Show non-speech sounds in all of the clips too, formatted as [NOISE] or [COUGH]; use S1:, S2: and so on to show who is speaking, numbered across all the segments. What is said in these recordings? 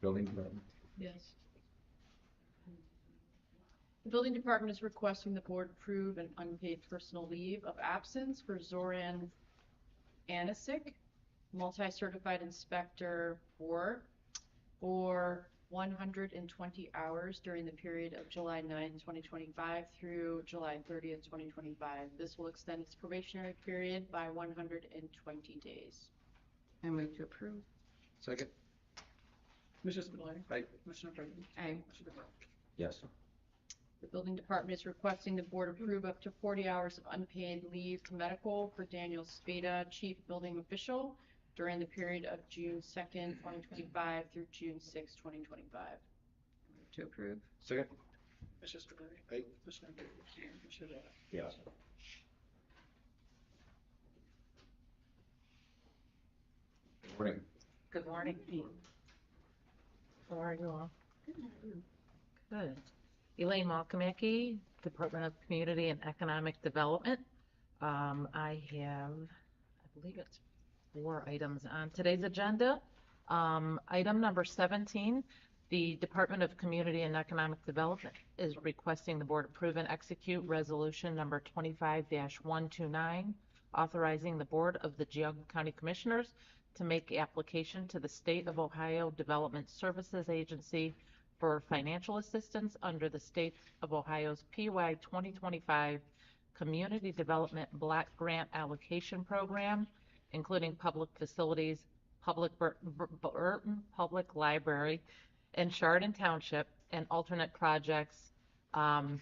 S1: building department?
S2: Yes. The building department is requesting the board approve an unpaid personal leave of absence for Zoran Anisic, multi-certified inspector four, for one hundred and twenty hours during the period of July 9, twenty twenty-five through July thirtieth, twenty twenty-five. This will extend its probationary period by one hundred and twenty days.
S3: I move to approve.
S1: Second?
S4: Commissioner Spudler.
S1: Aye.
S4: Commissioner Brinkley.
S3: Aye.
S4: Commissioner DeBoer.
S1: Yes.
S2: The building department is requesting the board approve up to 40 hours of unpaid leave to medical for Daniel Spada, chief building official, during the period of June 2nd, 2025 through June 6th, 2025.
S3: Move to approve.
S1: Second?
S4: Commissioner Spudler.
S1: Aye.
S4: Commissioner Brinkley. Commissioner DeBoer.
S1: Yes. Morning.
S3: Good morning.
S5: How are you all? Good. Elaine Malkamaki, Department of Community and Economic Development. Um, I have, I believe it's four items on today's agenda. Um, item number seventeen, the Department of Community and Economic Development is requesting the board approve and execute resolution number twenty-five one two nine, authorizing the Board of the Geogu County Commissioners to make application to the State of Ohio Development Services Agency for financial assistance under the State of Ohio's PY 2025 Community Development Block Grant Allocation Program, including public facilities, public Bur- Bur- Burton Public Library, and Chardon Township, and alternate projects. um,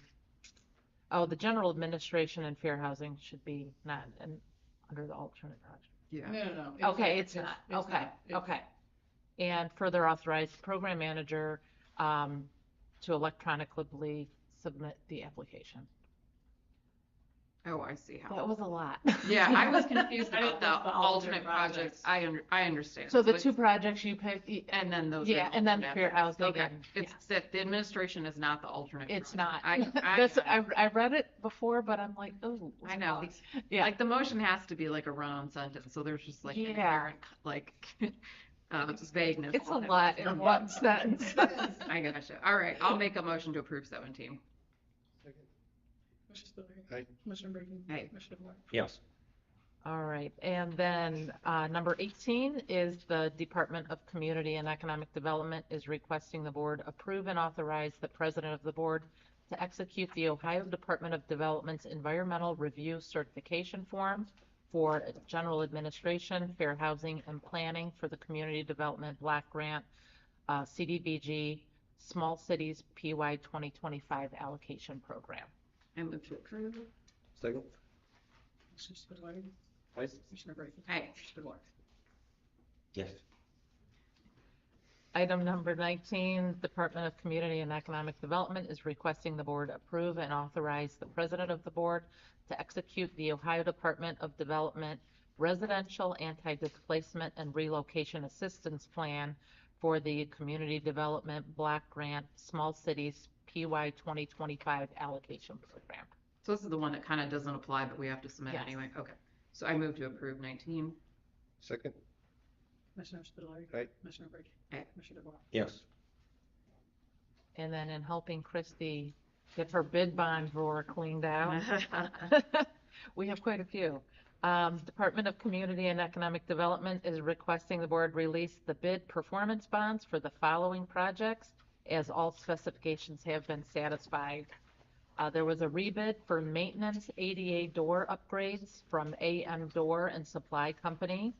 S5: Oh, the General Administration and Fair Housing should be not in- under the alternate project.
S3: Yeah.
S4: No, no, no.
S5: Okay, it's not,
S4: it's
S5: okay,
S4: not. It's-
S5: okay. And further authorize program manager um, to electronically submit the application.
S3: Oh, I see how.
S5: That was a lot. [LAUGHS]
S3: Yeah, I was confused
S4: I didn't
S3: about the
S4: know the alternate
S3: alternate projects.
S4: projects.
S3: I, un- I understand.
S5: So the
S3: it's-
S5: two projects you pick, y-
S3: And then those. are
S5: yeah, and then
S3: alternate.
S5: fair housing.
S3: Okay,
S5: and-
S3: it's that the administration is not the alternate.
S5: yeah. It's
S3: project.
S5: not. [LAUGHS]
S3: I,
S5: That's,
S3: I,
S5: I, I read it before, but I'm like, oh.
S3: I know.
S5: Yeah,
S3: Like the motion has to be like a run-on sentence, so there's just like
S5: Yeah.
S3: inherent, like, [LAUGHS] uh, vagueness.
S5: it's a
S3: on it.
S5: lot in one sentence.
S3: [LAUGHS]
S5: [LAUGHS]
S3: I gotcha. All right, I'll make a motion to approve seventeen.
S4: Commissioner Spudler.
S1: Aye.
S4: Commissioner Brinkley.
S3: Aye.
S4: Commissioner DeBoer.
S1: Yes.
S5: All right, and then uh, number 18 is the Department of Community and Economic Development is requesting the board approve and authorize the president of the board to execute the Ohio Department of Development's Environmental Review Certification Form for General Administration, Fair Housing, and Planning for the Community Development Black Grant, uh, CDBG, Small Cities PY 2025 Allocation Program.
S3: I move to approve.
S1: Second?
S4: Commissioner Spudler.
S1: Aye.
S4: Commissioner Brinkley.
S3: Aye.
S4: Commissioner DeBoer.
S1: Yes.
S5: Item number 19, Department of Community and Economic Development is requesting the board approve and authorize the president of the board to execute the Ohio Department of Development Residential Anti-Displacement and Relocation Assistance Plan for the Community Development Block Grant Small Cities PY 2025 Allocation Program.
S3: So this is the one that kind of doesn't apply, but we have to submit
S5: Yes.
S3: anyway. Okay. So I move to approve nineteen.
S1: Second?
S4: Commissioner Spudler.
S1: Aye.
S4: Commissioner Brinkley.
S3: Aye.
S4: Commissioner DeBoer.
S1: Yes.
S5: And then in helping Christie get her bid bond drawer cleaned
S3: [LAUGHS]
S5: out, [LAUGHS] We have quite a few. Um, Department of Community and Economic Development is requesting the board release the bid performance bonds for the following projects as all specifications have been satisfied. Uh, there was a rebid for maintenance ADA door upgrades from AM Door and Supply Company.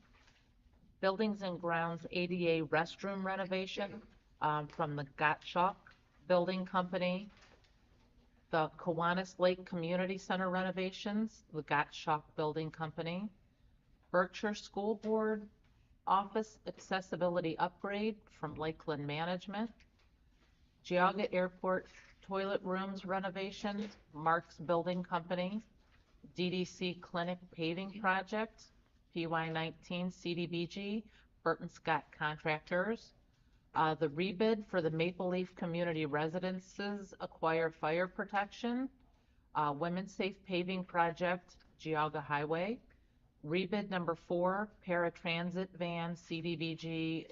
S5: Buildings and Grounds ADA restroom renovation, um, from the Gottschalk Building Company the Kiwanis Lake Community Center renovations, the Gottschalk Building Company, Berkshire School Board Office Accessibility Upgrade from Lakeland Management, Geauga Airport Toilet Rooms renovations, Mark's Building Company, DDC Clinic Paving Project, PY19 CDBG, Burton Scott Contractors, uh, the rebid for the Maple Leaf Community Residences Acquire Fire Protection, uh, Women's Safe Paving Project, Geauga Highway, rebid number four, Paratransit Van CDVG